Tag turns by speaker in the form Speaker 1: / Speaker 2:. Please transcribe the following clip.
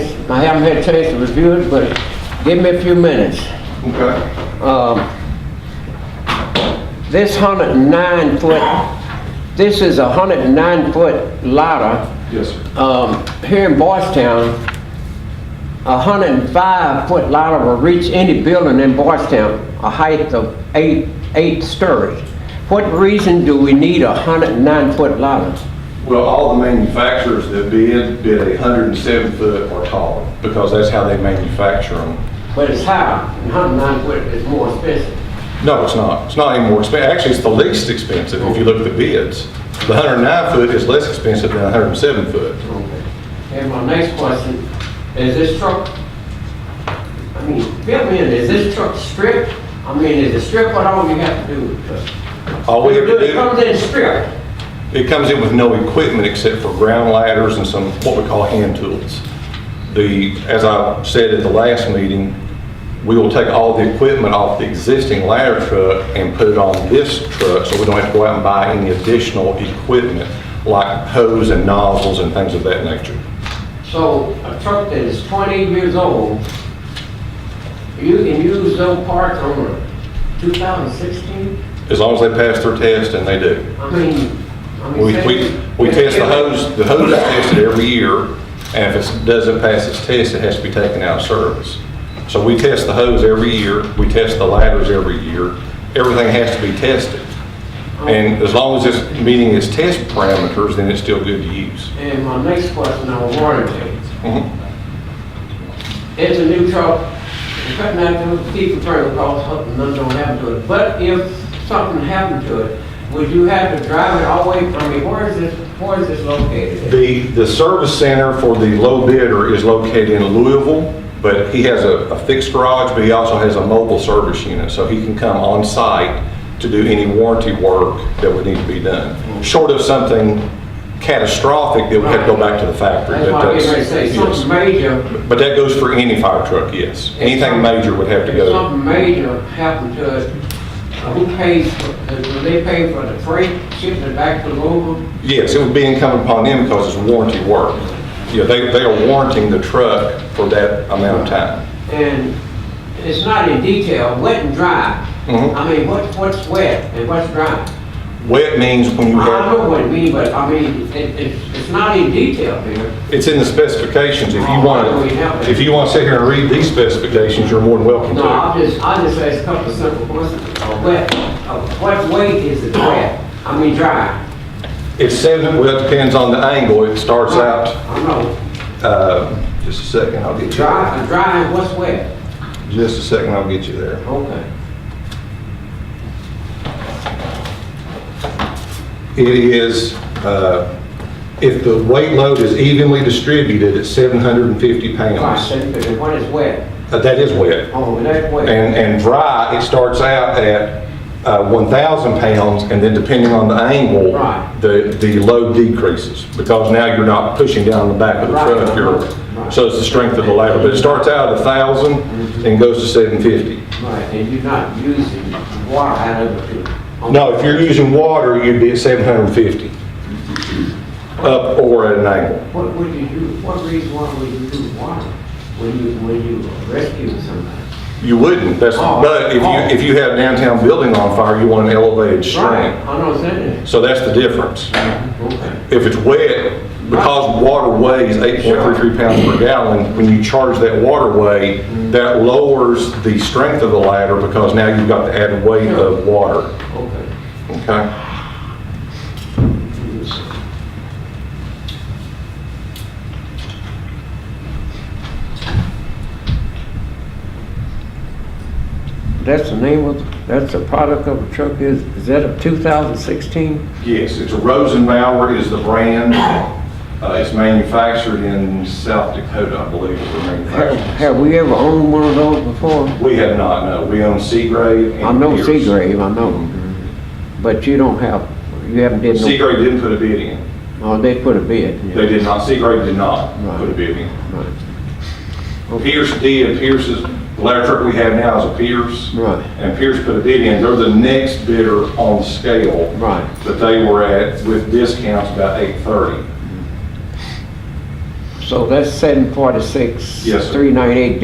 Speaker 1: I haven't had a chance to review it, but give me a few minutes.
Speaker 2: Okay.
Speaker 1: Um, This hundred and nine foot, this is a hundred and nine foot ladder
Speaker 2: Yes, sir.
Speaker 1: um, here in Boystown, a hundred and five foot ladder will reach any building in Boystown, a height of eight, eight stories. What reason do we need a hundred and nine foot ladder?
Speaker 2: Well, all the manufacturers that bid, bid a hundred and seven foot or taller, because that's how they manufacture them.
Speaker 1: But it's higher, and hundred and nine foot is more expensive.
Speaker 2: No, it's not. It's not any more expensive. Actually, it's the least expensive if you look at the bids. The hundred and nine foot is less expensive than a hundred and seven foot.
Speaker 1: And my next question, is this truck, I mean, fill me in, is this truck stripped? I mean, is it stripped, what all you have to do? with the truck?
Speaker 2: All we have to
Speaker 1: It comes
Speaker 2: do,
Speaker 1: in stripped.
Speaker 2: it comes in with no equipment except for ground ladders and some, what we call hand tools. The, as I said at the last meeting, we will take all the equipment off the existing ladder truck and put it on this truck, so we don't have to go out and buy any additional equipment like hose and nozzles and things of that nature.
Speaker 1: So a truck that is 20 years old, you can use those parts on a 2016?
Speaker 2: As long as they pass their test, and they do.
Speaker 1: I mean, I mean...
Speaker 2: We,
Speaker 1: say-
Speaker 2: we, we test the hose, the hose is tested every year, and if it doesn't pass its test, it has to be taken out of service. So we test the hose every year, we test the ladders every year, everything has to be tested. And as long as it's meeting its test parameters, then it's still good to use.
Speaker 1: And my next question on warranty.
Speaker 2: Mhm. Mm-hmm.
Speaker 1: It's a new truck, it's cutting out the people turn across, something none don't happen to it. But if something happened to it, would you have to drive it all the way, I mean, where is this, where is this located?
Speaker 2: The, the service center for the low bidder is located in Louisville, but he has a a fixed garage, but he also has a mobile service unit, so he can come on site to do any warranty work that would need to be done, short of something catastrophic that would have to go back to the factory.
Speaker 1: That's
Speaker 2: but
Speaker 1: why I was gonna say,
Speaker 2: that's-
Speaker 1: something
Speaker 2: yes.
Speaker 1: major,
Speaker 2: But that goes for any fire truck, yes. Anything major would have to
Speaker 1: If
Speaker 2: go.
Speaker 1: something major happened to us, who pays, for- do they pay for the freight, shipping it back to Louisville?
Speaker 2: Yes, it would be incumbent upon them because it's warranty work. Yeah, they, they are warranting the truck for that amount of time.
Speaker 1: And it's not in detail, wet and dry.
Speaker 2: Mhm.
Speaker 1: I mean, what, what's wet and what's dry?
Speaker 2: Wet means when you
Speaker 1: I
Speaker 2: have.
Speaker 1: don't know what it means, but I mean, it, it's, it's not in detail here.
Speaker 2: It's in the specifications, if you want to, if you want to sit here and read these specifications, you're more than welcome
Speaker 1: No,
Speaker 2: to.
Speaker 1: I'll just, I'll just ask a couple of simple questions. Uh, Wet, uh, what weight is it wet? I mean, dry?
Speaker 2: It's seven, well, it depends on the angle, it starts out,
Speaker 1: I know,
Speaker 2: uh, just a second, I'll get you there.
Speaker 1: dry, dry and what's wet?
Speaker 2: Just a second, I'll get you there.
Speaker 1: Okay.
Speaker 2: It is, uh, if the weight load is evenly distributed, it's 750
Speaker 1: Right,
Speaker 2: pounds.
Speaker 1: so, but what is wet?
Speaker 2: Uh, That is wet.
Speaker 1: Oh, that's wet.
Speaker 2: And, and dry, it starts out at uh, 1,000 pounds, and then depending on the angle,
Speaker 1: Right.
Speaker 2: the, the load decreases, because now you're not pushing down the back of the
Speaker 1: Right.
Speaker 2: truck, you're,
Speaker 1: Right.
Speaker 2: so it's the strength of the ladder, but it starts out at 1,000 and goes to 750.
Speaker 1: Right, and you're not using water out of it. to-
Speaker 2: No, if you're using water, you'd be at 750, up or at an angle.
Speaker 1: What would you do, what reason why would you use water when you, when you rescue somebody?
Speaker 2: You wouldn't, that's,
Speaker 1: Oh.
Speaker 2: but if
Speaker 1: Oh.
Speaker 2: you, if you have a downtown building on fire, you want an elevated
Speaker 1: Right,
Speaker 2: strength.
Speaker 1: I know what I'm saying.
Speaker 2: So that's the difference.
Speaker 1: Okay.
Speaker 2: if it's wet, because water weighs 8.33 pounds per gallon, when you charge that water weight, that lowers the strength of the ladder because now you've got the added weight of water,
Speaker 1: Okay.
Speaker 2: okay?
Speaker 1: That's the name of, that's the product of the truck is, is that a 2016?
Speaker 2: Yes, it's a Rosenbauer is the brand. Uh, It's manufactured in South Dakota, I believe, is where
Speaker 1: Have
Speaker 2: manufactured.
Speaker 1: have we ever owned one of those before?
Speaker 2: We have not, no. We own Seagrave and
Speaker 1: I know
Speaker 2: Pierce.
Speaker 1: Seagrave, I know. But you don't have, you haven't did no,
Speaker 2: Seagrave didn't put a bid in.
Speaker 1: oh, they put a bid.
Speaker 2: They did not, Seagrave did not
Speaker 1: Right.
Speaker 2: put a bid in.
Speaker 1: Right.
Speaker 2: Pierce did, Pierce's, the ladder truck we have now is a Pierce.
Speaker 1: Right.
Speaker 2: And Pierce put a bid in, they're the next bidder on the scale.
Speaker 1: Right.
Speaker 2: That they were at with discounts about eight thirty.
Speaker 3: So that's seven forty-six.
Speaker 4: Yes, sir.
Speaker 3: Three ninety-eight